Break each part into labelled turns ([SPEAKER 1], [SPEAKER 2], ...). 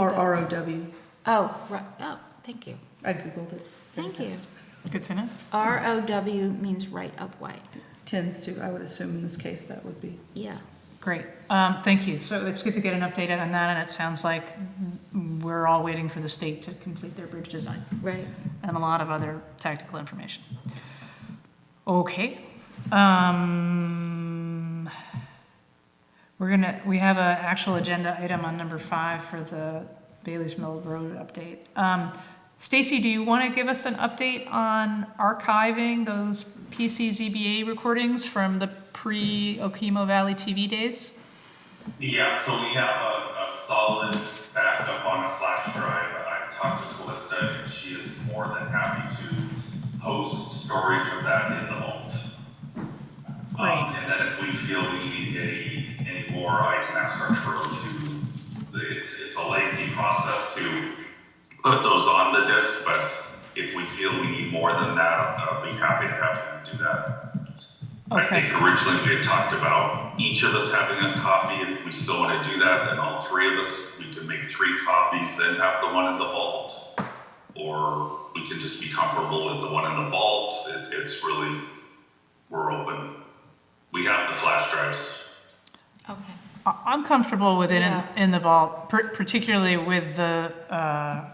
[SPEAKER 1] Or
[SPEAKER 2] about-
[SPEAKER 1] ROW.
[SPEAKER 2] Oh, right, oh, thank you,
[SPEAKER 1] I Googled it.
[SPEAKER 2] thank you.
[SPEAKER 3] Good to know.
[SPEAKER 2] ROW means right of way,
[SPEAKER 1] Tends to, I would assume in this case, that would be.
[SPEAKER 2] yeah.
[SPEAKER 3] Great. Um, Thank you. So it's good to get an update on that, and it sounds like we're all waiting for the state to complete their bridge design
[SPEAKER 2] Right.
[SPEAKER 3] and a lot of other tactical information. Okay. Um, We're gonna, we have an actual agenda item on number five for the Bailey's Mill Road update. Um, Stacy, do you want to give us an update on archiving those PCZBA recordings from the pre-Okemo Valley TV days?
[SPEAKER 4] Yeah, so we have a, a solid backup on a flash drive. I've talked to Calista and she is more than happy to host storage of that in the vault. Um,
[SPEAKER 3] Right.
[SPEAKER 4] and then if we feel we need any, any more, I can ask our crew to, it, it's a lengthy process to put those on the disk, but if we feel we need more than that, I'll be happy to have them do that. I
[SPEAKER 3] Okay.
[SPEAKER 4] think originally we had talked about each of us having a copy, and if we still want to do that, then all three of us, we can make three copies, then have the one in the vault. Or we can just be comfortable with the one in the vault, it, it's really, we're open. We have the flash drives.
[SPEAKER 2] Okay.
[SPEAKER 3] I- I'm comfortable with it in,
[SPEAKER 2] Yeah.
[SPEAKER 3] in the vault, par- particularly with the, uh, uh,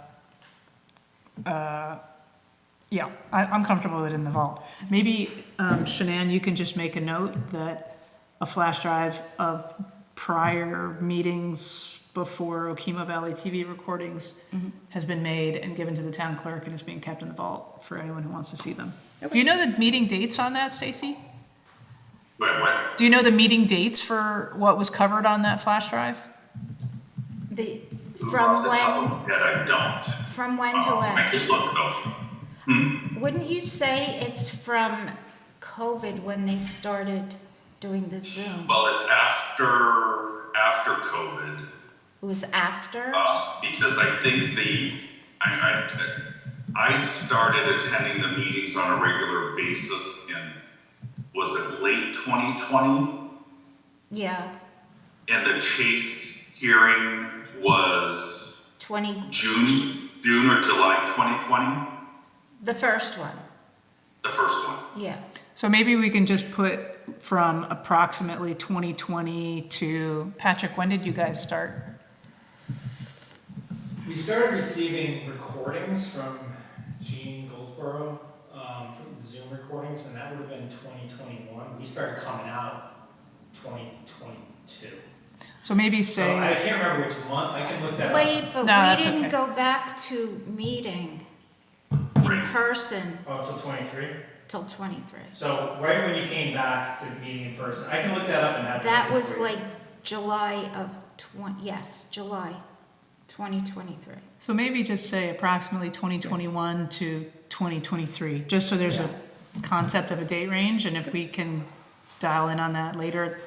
[SPEAKER 3] yeah, I, I'm comfortable with it in the vault. Maybe, um, Shanann, you can just make a note that a flash drive of prior meetings before Okemo Valley TV recordings has been made and given to the town clerk and is being kept in the vault for anyone who wants to see them. Do you know the meeting dates on that, Stacy?
[SPEAKER 4] Wait, wait,
[SPEAKER 3] Do you know the meeting dates for what was covered on that flash drive?
[SPEAKER 2] The,
[SPEAKER 4] who off
[SPEAKER 2] from
[SPEAKER 4] the top of
[SPEAKER 2] when,
[SPEAKER 4] my head, I don't.
[SPEAKER 2] from when to
[SPEAKER 4] Um, I
[SPEAKER 2] when?
[SPEAKER 4] just looked though.
[SPEAKER 2] Wouldn't you say it's from COVID when they started doing the Zoom?
[SPEAKER 4] Well, it's after, after COVID.
[SPEAKER 2] It was after?
[SPEAKER 4] Uh, because I think the, I, I, I started attending the meetings on a regular basis in, was it late 2020?
[SPEAKER 2] Yeah,
[SPEAKER 4] And the Chase hearing was
[SPEAKER 2] twenty,
[SPEAKER 4] June, June or July 2020,
[SPEAKER 2] the first one,
[SPEAKER 4] the first one.
[SPEAKER 2] yeah.
[SPEAKER 3] So maybe we can just put from approximately 2020 to, Patrick, when did you guys start?
[SPEAKER 5] We started receiving recordings from Gene Goldsboro, um, from the Zoom recordings, and that would have been twenty twenty-one. We started coming out twenty twenty-two.
[SPEAKER 3] So maybe
[SPEAKER 5] So I
[SPEAKER 3] say,
[SPEAKER 5] can't remember which month, I can look that up.
[SPEAKER 2] Wait, but
[SPEAKER 3] No,
[SPEAKER 2] we
[SPEAKER 3] that's
[SPEAKER 2] didn't
[SPEAKER 3] okay.
[SPEAKER 2] go back to meeting in
[SPEAKER 4] Right.
[SPEAKER 2] person
[SPEAKER 5] Oh, till twenty-three?
[SPEAKER 2] till twenty-three.
[SPEAKER 5] So right when you came back to meeting in person, I can look that up and have. the
[SPEAKER 2] That
[SPEAKER 5] answer
[SPEAKER 2] was
[SPEAKER 5] for you.
[SPEAKER 2] like July of twen, yes, July twenty twenty-three.
[SPEAKER 3] so maybe just say approximately 2021 to 2023, just so there's a concept of a date range, and if we can dial in on that later,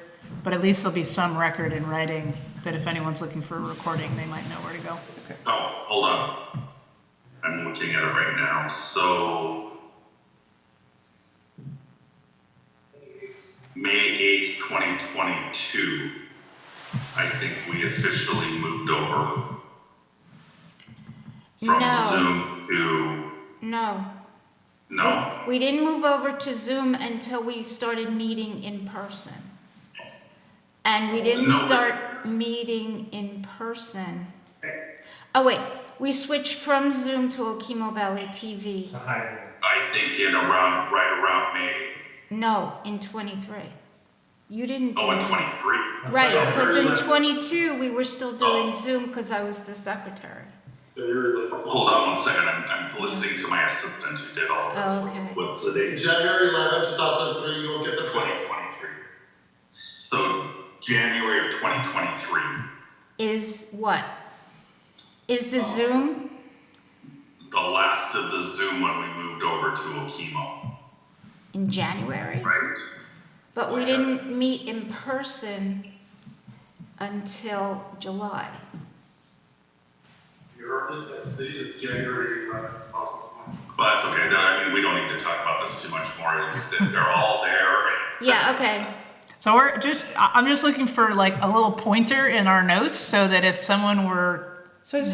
[SPEAKER 3] but at least there'll be some record in writing that if anyone's looking for a recording, they might know where to go.
[SPEAKER 4] Oh, hold on. I'm looking at it right now, so. May eighth, twenty twenty-two, I think we officially moved over.
[SPEAKER 2] No.
[SPEAKER 4] From Zoom to,
[SPEAKER 2] No,
[SPEAKER 4] no,
[SPEAKER 2] we didn't move over to Zoom until we started meeting in person. And we didn't
[SPEAKER 4] No, but-
[SPEAKER 2] start meeting in person. Oh, wait, we switched from Zoom to Okemo Valley TV.
[SPEAKER 5] To hire.
[SPEAKER 4] I think in around, right around May,
[SPEAKER 2] No, in twenty-three. You didn't do
[SPEAKER 4] oh, in
[SPEAKER 2] it.
[SPEAKER 4] twenty-three.
[SPEAKER 2] Right,
[SPEAKER 4] Oh,
[SPEAKER 2] because
[SPEAKER 4] very
[SPEAKER 2] in
[SPEAKER 4] little.
[SPEAKER 2] twenty-two, we were still
[SPEAKER 4] Oh.
[SPEAKER 2] doing Zoom because I was the secretary.
[SPEAKER 4] Hold on one second, I'm, I'm listening to my assistant who did all this.
[SPEAKER 2] Oh, okay.
[SPEAKER 4] What's the date?
[SPEAKER 6] January 11, 2003, you'll get the 20.
[SPEAKER 4] 2023. So January of 2023.
[SPEAKER 2] Is what? Is the Zoom?
[SPEAKER 4] The last of the Zoom when we moved over to Okemo,
[SPEAKER 2] In January?
[SPEAKER 4] right?
[SPEAKER 2] But we didn't meet in person until July.
[SPEAKER 6] Your representative city is January 11, 2001.
[SPEAKER 4] But that's okay, no, I mean, we don't need to talk about this too much more, they're all there.
[SPEAKER 2] Yeah, okay,
[SPEAKER 3] So we're just, I- I'm just looking for like a little pointer in our notes so that if someone were
[SPEAKER 1] So I just